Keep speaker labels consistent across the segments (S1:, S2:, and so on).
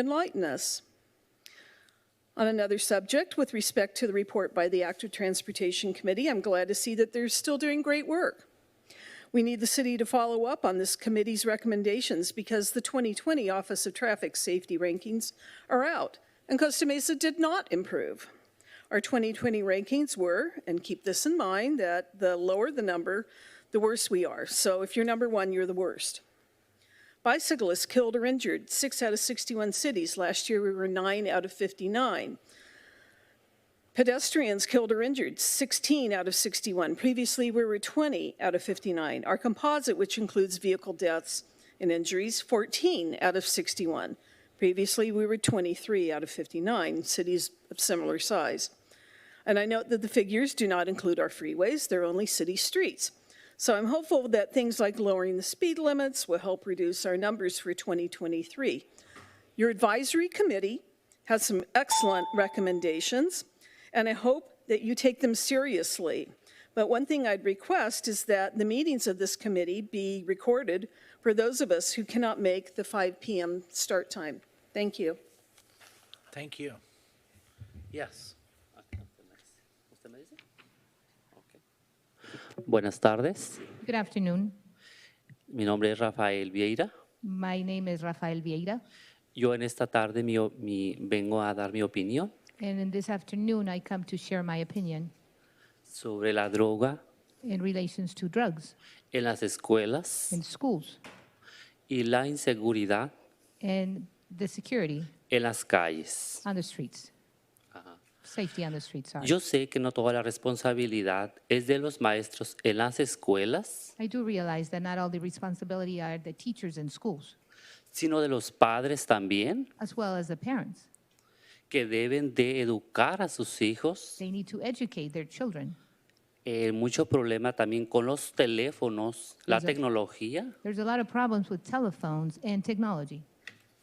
S1: enlighten us. On another subject, with respect to the report by the Active Transportation Committee, I'm glad to see that they're still doing great work. We need the city to follow up on this committee's recommendations because the 2020 Office of Traffic Safety rankings are out, and Costa Mesa did not improve. Our 2020 rankings were, and keep this in mind, that the lower the number, the worse we are. So if you're number one, you're the worst. Bicyclists killed or injured, six out of 61 cities. Last year, we were nine out of 59. Pedestrians killed or injured, 16 out of 61. Previously, we were 20 out of 59. Our composite, which includes vehicle deaths and injuries, 14 out of 61. Previously, we were 23 out of 59, cities of similar size. And I note that the figures do not include our freeways, they're only city streets. So I'm hopeful that things like lowering the speed limits will help reduce our numbers for 2023. Your advisory committee has some excellent recommendations, and I hope that you take them seriously. But one thing I'd request is that the meetings of this committee be recorded for those of us who cannot make the 5 PM start time. Thank you.
S2: Thank you. Yes.
S3: Buenas tardes,
S4: Good afternoon.
S3: mi nombre es Rafael Vieira.
S4: My name is Rafael Vieira,
S3: Yo en esta tarde mi o- mi- vengo a dar mi opinión
S4: and in this afternoon I come to share my opinion
S3: sobre la droga
S4: in relations to drugs
S3: en las escuelas
S4: in schools
S3: y la inseguridad
S4: and the security
S3: en las calles.
S4: on the streets. Safety on the streets, sorry.
S3: Yo sé que no toda la responsabilidad es de los maestros en las escuelas,
S4: I do realize that not all the responsibility are the teachers in schools,
S3: sino de los padres también,
S4: as well as the parents.
S3: que deben de educar a sus hijos.
S4: They need to educate their children.
S3: Eh, mucho problema también con los teléfonos, la
S4: Exacto.
S3: tecnología
S4: There's a lot of problems with telephones and technology.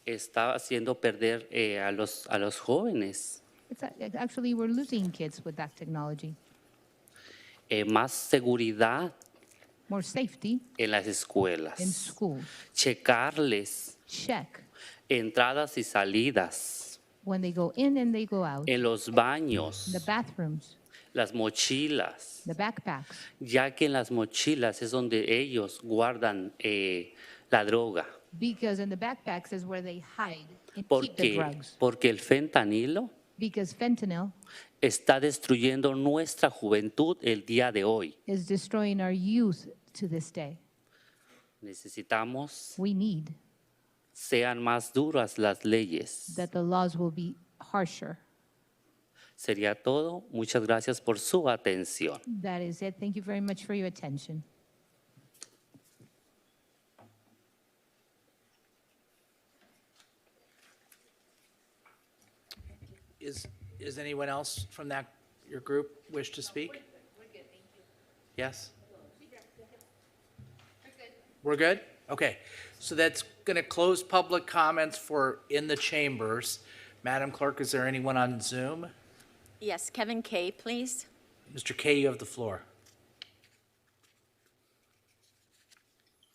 S3: está haciendo perder eh, a, los, a los jóvenes.
S4: It's, a- actually, we're losing kids with that technology.
S3: eh, más seguridad
S4: More safety
S3: en las
S4: in
S3: escuelas,
S4: schools.
S3: checarles
S4: Check
S3: entradas y salidas,
S4: when they go in and they go out,
S3: en los
S4: the
S3: baños,
S4: bathrooms,
S3: las mochilas,
S4: the backpacks,
S3: ya que en las mochilas es donde ellos guardan eh, la droga,
S4: because in the backpacks is where they hide and keep the
S3: porque,
S4: drugs.
S3: porque el fentanilo
S4: Because fentanyl
S3: está destruyendo nuestra juventud el día de hoy.
S4: is destroying our youth to this day.
S3: Necesitamos
S4: We need
S3: sean más duras las leyes.
S4: that the laws will be harsher.
S3: Sería todo. Muchas gracias por su atención.
S4: That is it. Thank you very much for your attention.
S2: Is, is anyone else from that, your group wish to speak? Yes? We're good? Okay. So that's going to close public comments for in the chambers. Madam Clerk, is there anyone on Zoom?
S5: Yes, Kevin Kay, please.
S2: Mr. Kay, you have the floor.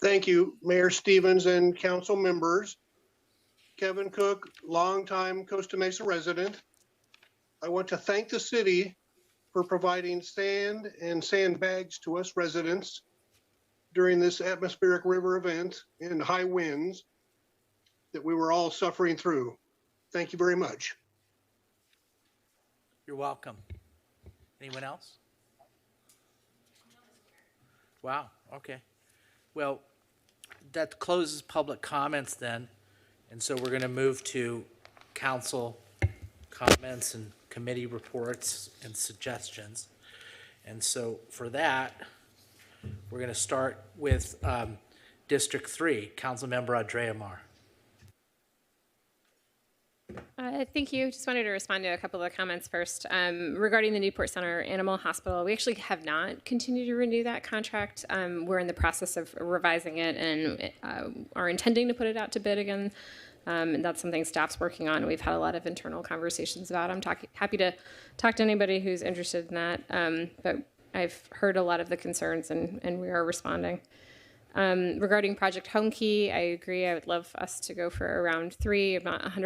S6: Thank you, Mayor Stevens and council members. Kevin Cook, longtime Costa Mesa resident. I want to thank the city for providing sand and sandbags to us residents during this atmospheric river event and high winds that we were all suffering through. Thank you very much.
S2: You're welcome. Anyone else? Wow, okay. Well, that closes public comments then, and so we're going to move to council comments and committee reports and suggestions. And so for that, we're going to start with um, District 3, Councilmember Andrea Mar.
S7: Uh, Thank you. Just wanted to respond to a couple of the comments first. Um, Regarding the Newport Center Animal Hospital, we actually have not continued to renew that contract. Um, We're in the process of revising it and uh, are intending to put it out to bid again. Um, And that's something staff's working on. We've had a lot of internal conversations about. I'm talking, happy to talk to anybody who's interested in that. Um, But I've heard a lot of the concerns and, and we are responding. Um, Regarding Project Home Key, I agree. I would love us to go for a round three. I'm not 100%